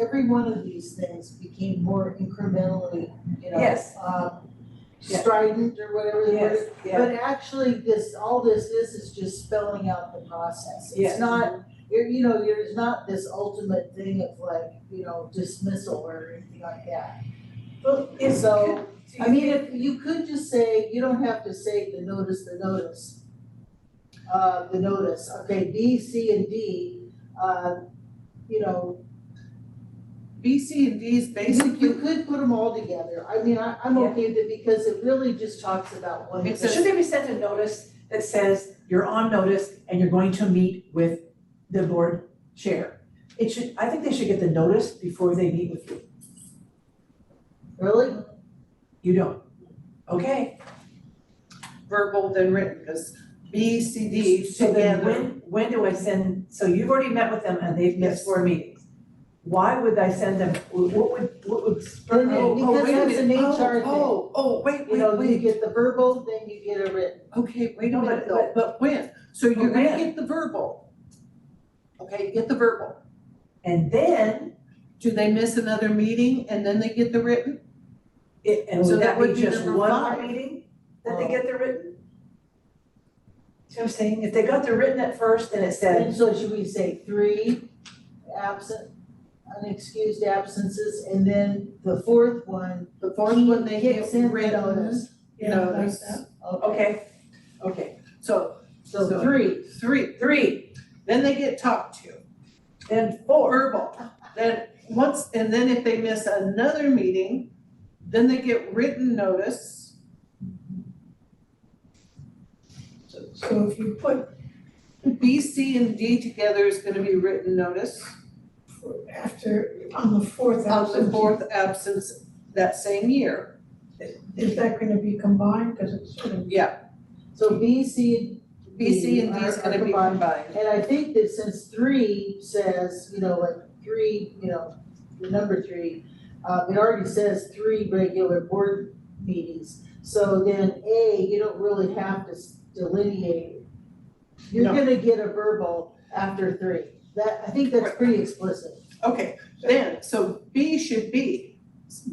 every one of these things became more incrementally, you know, Yes. uh, Yeah. strident or whatever the word is. Yes, yeah, But actually, this, all this is, is just spelling out the process. Yes. It's not, you're, you know, there's not this ultimate thing of like, you know, dismissal or anything like that. well, it's, So, do I you mean, think- if, you could just say, you don't have to say the notice, the notice. Uh, the notice, okay, B, C, and D, uh, you know, B, C, and D is you, you basically, could put them all together. I mean, I, I'm Yeah. okay with it because it really just talks about one thing. It's a- should there be sent a notice that says you're on notice and you're going to meet with the board chair? It should, I think they should get the notice before they meet with you. Really? You don't. Okay, verbal than written, because B, C, D so then together. when, when do I send, so you've already met with them and they've missed four meetings. Why would I send them, what would, what would spur Then me? Oh, oh, because wait a that's an minute. HR thing. Oh, oh, oh, wait, You wait, know, you wait, get the verbal, then you get a written. okay, wait a No, but- minute though, but when? So But you're gonna when? get the verbal. Okay, get the verbal. And then, Do they miss another meeting and then they get the written? it, and So would that that would be be just number one five. more meeting, that they get the written? See what I'm saying, if they got the written at first, then it said, And so should we say three absent, unexcused absences, and then the fourth one, The fourth one, they He get kicks in the written, notice. you know, there's- okay, okay, okay, so so three, three, three, then they get talked to. then four, verbal, then once, and then if they miss another meeting, then they get written notice. So, so if you put B, C, and D together is gonna be written notice. after, on the fourth Of the absentee, fourth absence that same year. is that gonna be combined? Cause it's sort of, so B, C, B, C, and D is Are- are gonna be combined. combined. and I think that since three says, you know, like three, you know, the number three, uh, it already says three regular board meetings, so then A, you don't really have to s- delineate. You're No. gonna get a verbal after three, that, I think that's Right. pretty explicit. Okay, then, so B should be,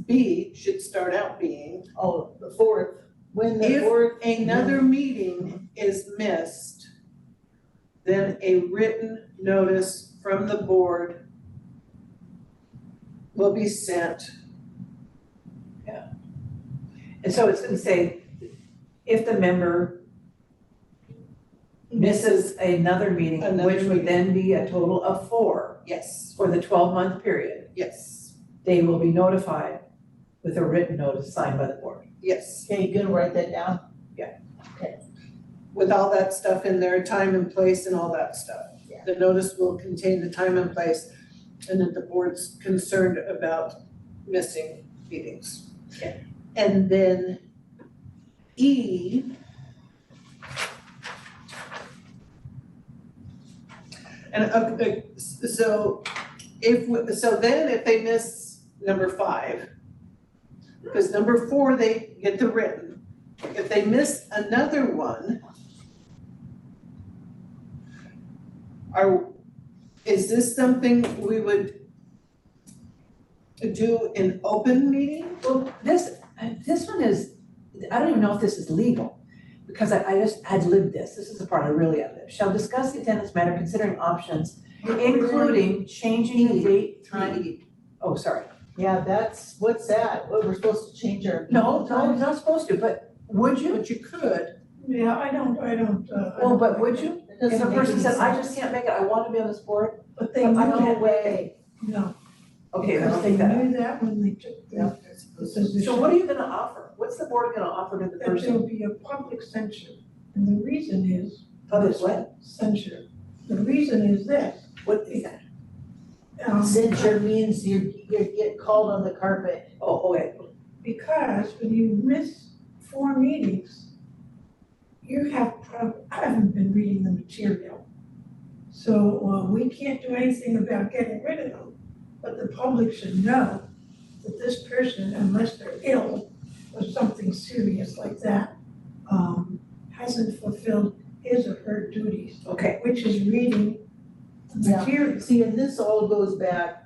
B should start out being, Oh, the fourth, when the If- fourth, another meeting is missed, then a written notice from the board will be sent and so it's gonna say, if the member misses another meeting, Another which meeting. would then be a total of four Yes, for the twelve-month period, yes, they will be notified with a written notice signed by the board. yes. okay, you gonna write that down? With all that stuff in there, time and place and all that stuff. Yeah. The notice will contain the time and place and that the board's concerned about missing meetings. Yeah. And then E. And uh, uh, so if, we- so then if they miss number five, because number four, they get the written. If they miss another one, are, is this something we would do in open meeting? Well, this, this one is, I don't even know if this is legal, because I, I just, I'd lived this, this is the part I really outlived. Shall discuss the attendance matter considering options, including changing the date. Trying. Oh, sorry, Yeah, that's, what's that, what, we're supposed to change our. no, no, I'm not supposed to, but would you? But you could, yeah, I don't, I don't, uh. I Well, don't- but would you? It If doesn't a make person any says, I sense. just can't make it, I want to be on this board, But they I know, can't- No way, no, okay, then because I'll they take that. out. knew that when they took the the position. So what are you gonna offer? What's the board gonna offer to the That person? there'll be a public censure, and the reason is Public what? censure. The reason is this, What is that? um, censure means you, you get called on the carpet, Oh, okay, Because when you miss four meetings, you have, prob- I haven't been reading the material. So, uh, we can't do anything about getting rid of them, but the public should know that this person, unless they're ill or something serious like that, um, hasn't fulfilled his or her duties, okay, which is reading the Yeah. material. see, and this all goes back